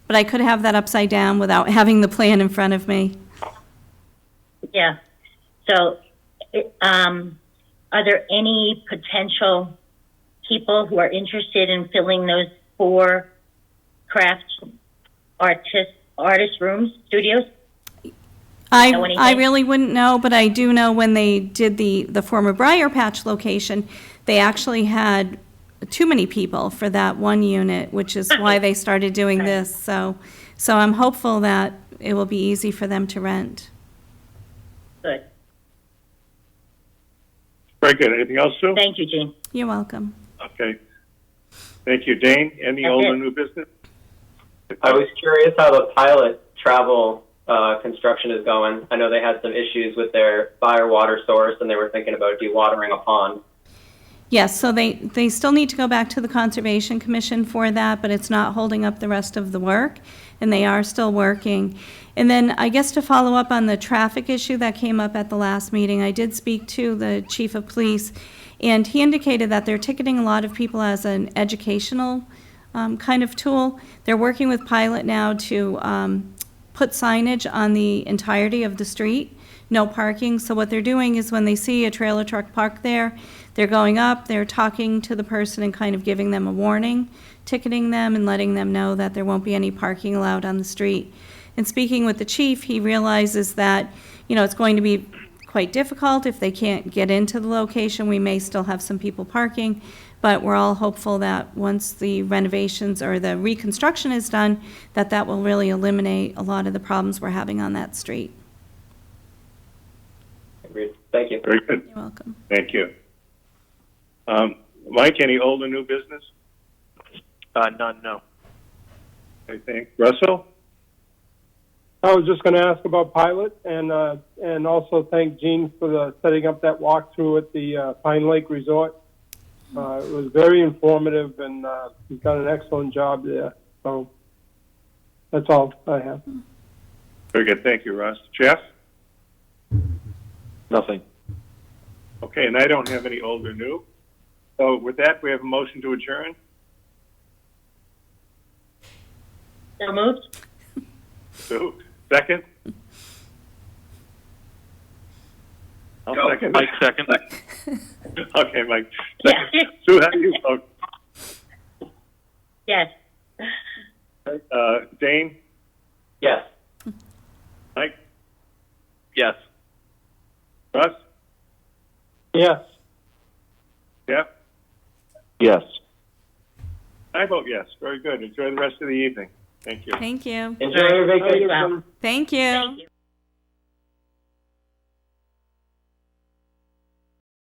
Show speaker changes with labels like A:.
A: but I could have that upside down without having the plan in front of me.
B: Yeah. So, it- um, are there any potential people who are interested in filling those four craft artist artist rooms studios?
A: I,
B: Know
A: I
B: anything?
A: really wouldn't know, but I do know when they did the, the former Briar Patch location, they actually had too many people for that one unit, which is why they started doing this, so, so I'm hopeful that it will be easy for them to rent.
B: Good.
C: Very good. Anything else, Sue?
B: Thank you, Jean.
A: You're welcome.
C: Okay. Thank you, Dane. Any
B: That's
C: old
B: it.
C: or new business?
D: I was curious how the pilot travel uh, construction is going. I know they had some issues with their fire water source, and they were thinking about dewatering a pond.
A: Yes, so they, they still need to go back to the Conservation Commission for that, but it's not holding up the rest of the work, and they are still working. And then, I guess to follow up on the traffic issue that came up at the last meeting, I did speak to the chief of police, and he indicated that they're ticketing a lot of people as an educational um, kind of tool. They're working with Pilot now to um, put signage on the entirety of the street, no parking. So what they're doing is when they see a trailer truck parked there, they're going up, they're talking to the person and kind of giving them a warning, ticketing them and letting them know that there won't be any parking allowed on the street. And speaking with the chief, he realizes that, you know, it's going to be quite difficult. If they can't get into the location, we may still have some people parking. But we're all hopeful that once the renovations or the reconstruction is done, that that will really eliminate a lot of the problems we're having on that street.
D: Agreed. Thank you.
C: Very good.
A: You're welcome.
C: Thank you. Um, Mike, any old or new business?
E: Uh, none, no.
C: I think. Russell?
F: I was just going to ask about Pilot and uh, and also thank Gene for the setting up that walkthrough at the uh, Pine Lake Resort. Uh, it was very informative and uh, he's done an excellent job there. So that's all I have.
C: Very good. Thank you, Russ. Jeff?
E: Nothing.
C: Okay, and I don't have any old or new. So with that, we have a motion to adjourn.
B: So moved.
C: Sue, second? I'll second.
E: Mike, second.
C: Okay, Mike.
B: Yeah.
C: Second. Sue, how do you vote?
B: Yes.
C: Uh, Dane?
D: Yes.
C: Mike?
E: Yes.
C: Russ?
F: Yes.
C: Jeff?
E: Yes.
C: I vote yes. Very good. Enjoy the rest of the evening. Thank you.
A: Thank you.
D: Enjoy your
B: Alright.
D: vacation.
B: Well,
A: Thank you.
B: Thank you.